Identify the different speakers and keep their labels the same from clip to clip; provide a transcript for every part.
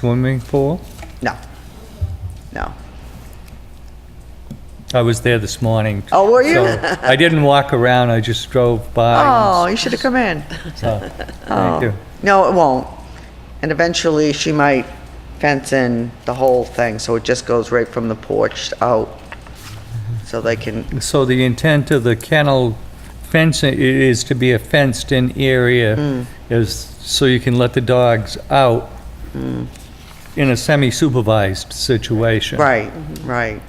Speaker 1: swimming pool?
Speaker 2: No.
Speaker 3: Uh,
Speaker 2: No.
Speaker 1: I was there this morning.
Speaker 2: Oh, were you?
Speaker 1: so I didn't walk around, I just drove by.
Speaker 2: Oh, you should have come in.
Speaker 1: and saw. Thank you.
Speaker 2: No, it won't. And eventually she might fence in the whole thing, so it just goes right from the porch out. So they can,
Speaker 1: So the intent of the kennel fencing i- is to be a fenced-in
Speaker 2: Hmm.
Speaker 1: area, is so you can let the dogs out
Speaker 2: Hmm.
Speaker 1: in a semi-supervised situation.
Speaker 2: right, right.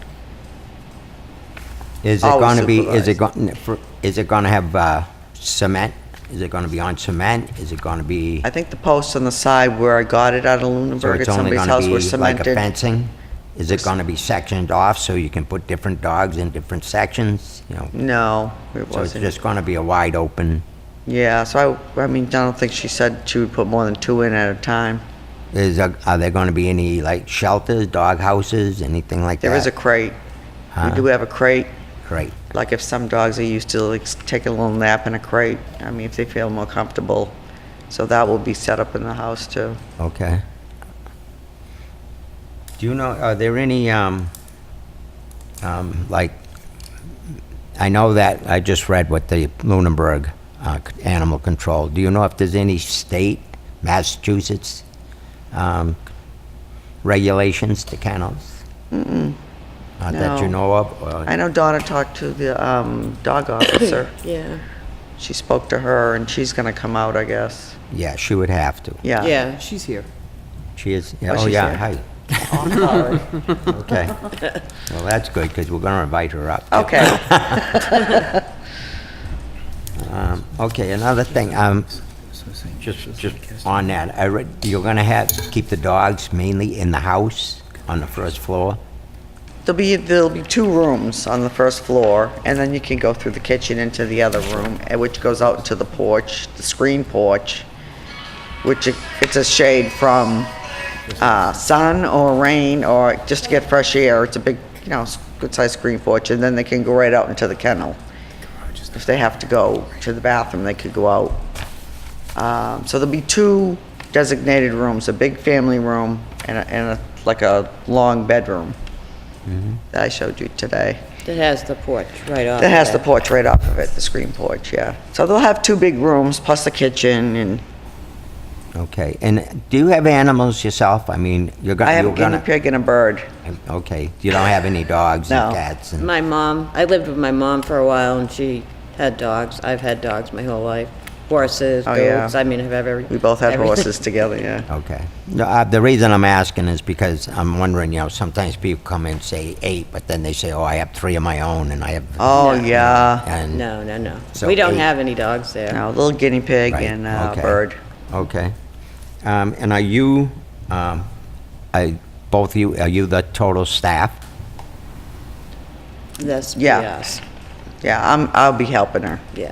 Speaker 3: Is it
Speaker 2: Always
Speaker 3: going to be, is it
Speaker 2: Oh, supervised.
Speaker 3: going, is it going to have uh, cement? Is it going to be on cement? Is it going to be,
Speaker 2: I think the posts on the side where I got it out of
Speaker 3: so
Speaker 2: Lunenburg at
Speaker 3: it's only
Speaker 2: somebody's
Speaker 3: going to
Speaker 2: house were
Speaker 3: be like a
Speaker 2: cemented.
Speaker 3: fencing? Is it going to be sectioned off so you can put different dogs in different sections? You know,
Speaker 2: No, it
Speaker 3: so it's
Speaker 2: wasn't.
Speaker 3: just going to be a wide open,
Speaker 2: Yeah, so I, I mean, I don't think she said she would put more than two in at a time.
Speaker 3: is, a- are there going to be any like shelters, dog houses, anything like that?
Speaker 2: There is a crate. We
Speaker 3: Huh?
Speaker 2: do have a crate.
Speaker 3: Great,
Speaker 2: Like if some dogs are used to like s- take a little nap in a crate, I mean, if they feel more comfortable. So that will be set up in the house too.
Speaker 3: okay. Do you know, are there any, um, um, like, I know that, I just read what the Lunenburg uh, c- Animal Control, do you know if there's any state, Massachusetts, um, regulations to kennels? Mm-mm. Not that you
Speaker 2: No.
Speaker 3: know of? or-
Speaker 2: I know Donna talked to the um, dog officer.
Speaker 4: Yeah,
Speaker 2: She spoke to her and she's gonna come out, I guess.
Speaker 3: Yeah, she would have to.
Speaker 2: Yeah.
Speaker 4: yeah, she's here.
Speaker 3: She is, yeah,
Speaker 2: Oh,
Speaker 3: oh
Speaker 2: she's
Speaker 3: yeah,
Speaker 2: here.
Speaker 3: hi,
Speaker 2: Oh,
Speaker 3: okay. Well, that's good, because we're going to invite her up. too.
Speaker 2: Okay.
Speaker 3: Um, Okay, another thing, um, just, just on that, I read, you're gonna have, keep the dogs mainly in the house on the first floor?
Speaker 2: There'll be, there'll be two rooms on the first floor, and then you can go through the kitchen into the other room, eh, which goes out to the porch, the screen porch, which it- it's a shade from uh, sun or rain, or just to get fresh air. It's a big, you know, s- good-sized screen porch, and then they can go right out into the kennel. If they have to go to the bathroom, they could go out. Um, So there'll be two designated rooms, a big family room and a- and a, like a long bedroom that I showed you today.
Speaker 4: That has the porch right off.
Speaker 2: That has the
Speaker 4: of it.
Speaker 2: porch right off of it, the screen porch, yeah. So they'll have two big rooms plus the kitchen and
Speaker 3: Okay, and do you have animals yourself? I mean, you're
Speaker 2: I
Speaker 3: gonna,
Speaker 2: have
Speaker 3: you're
Speaker 2: a guinea
Speaker 3: gonna... um,
Speaker 2: pig and a bird.
Speaker 3: Okay, you don't have any dogs
Speaker 2: No.
Speaker 3: and cats and...
Speaker 4: My mom, I lived with my mom for a while and she had dogs. I've had dogs my whole life. Horses,
Speaker 2: Oh, yeah.
Speaker 4: goats, I mean, I've every.
Speaker 2: We both had
Speaker 4: everything.
Speaker 2: horses together, yeah.
Speaker 3: Okay. No, uh, The reason I'm asking is because I'm wondering, you know, sometimes people come and say eight, but then they say, oh, I have three of my own, and I have...
Speaker 2: Oh,
Speaker 4: No.
Speaker 2: yeah.
Speaker 3: and-
Speaker 4: No, no, no.
Speaker 3: So
Speaker 4: We don't
Speaker 3: eight.
Speaker 4: have any dogs there.
Speaker 2: No, a little guinea pig
Speaker 3: Right,
Speaker 2: and uh, a
Speaker 3: okay,
Speaker 2: bird.
Speaker 3: Okay. Um, And are you, um, I- both you, are you the total staff?
Speaker 4: That's,
Speaker 2: Yeah.
Speaker 4: yes,
Speaker 2: Yeah, I'm, I'll be helping her.
Speaker 4: yeah.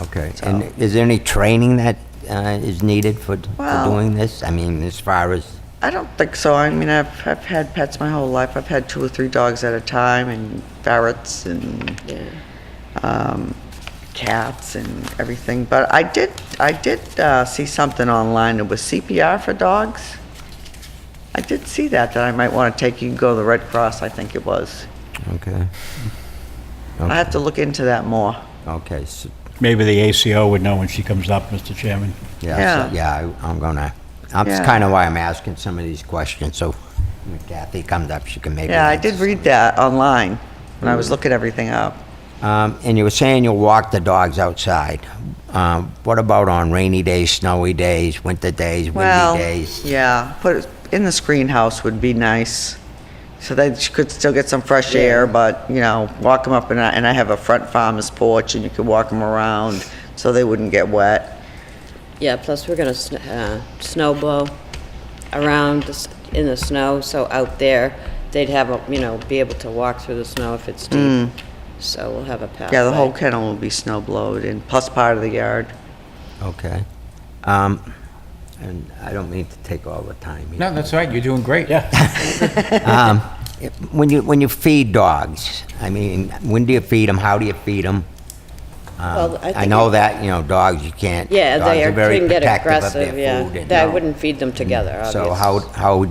Speaker 3: Okay. And is there any training that uh, is needed for for
Speaker 2: Well-
Speaker 3: doing this? I mean, as far as,
Speaker 2: I don't think so. I mean, I've, I've had pets my whole life. I've had two or three dogs at a time and ferrets and
Speaker 4: Yeah.
Speaker 2: um, cats and everything. But I did, I did uh, see something online. It was CPR for dogs. I did see that, that I might want to take you, go to the Red Cross, I think it was.
Speaker 3: okay,
Speaker 2: I have to look into that more.
Speaker 3: okay, so,
Speaker 5: Maybe the ACO would know when she comes up, Mr. Chairman.
Speaker 3: yeah,
Speaker 2: Yeah.
Speaker 3: so- yeah, I- I'm gonna, that's
Speaker 2: Yeah.
Speaker 3: kind of why I'm asking some of these questions, so when Kathy comes up, she can maybe...
Speaker 2: Yeah, I
Speaker 3: answer
Speaker 2: did read
Speaker 3: some.
Speaker 2: that online when I was looking everything up.
Speaker 3: Um, And you were saying you'll walk the dogs outside. Um, What about on rainy days, snowy days, winter days,
Speaker 2: Well,
Speaker 3: windy days?
Speaker 2: yeah, put it in the screen house would be nice. So they sh- could still get some fresh air, but, you know, walk them up and I, and I have a front farmer's porch and you could walk them around so they wouldn't get wet.
Speaker 4: Yeah, plus we're gonna sn- uh, snow blow around the s- in the snow, so out there, they'd have, a you know, be able to walk through the snow if it's deep. So we'll have a pathway.
Speaker 2: Hmm. Yeah, the whole kennel will be snow blowed and plus part of the yard.
Speaker 3: Okay. Um, And I don't mean to take all the time. here.
Speaker 6: No, that's all right, you're doing great. Yeah.
Speaker 3: Um, it- When you, when you feed dogs, I mean, when do you feed them? How do you feed them? Um,
Speaker 4: Well, I
Speaker 3: I
Speaker 4: think
Speaker 3: know
Speaker 4: it-
Speaker 3: that, you know, dogs, you can't, dogs
Speaker 4: Yeah, they
Speaker 3: are
Speaker 4: are,
Speaker 3: very
Speaker 4: can get
Speaker 3: protective of
Speaker 4: aggressive,
Speaker 3: their
Speaker 4: yeah.
Speaker 3: food. and- Mm-hmm.
Speaker 4: That- I wouldn't feed them together,
Speaker 3: So
Speaker 4: obviously.
Speaker 3: how, how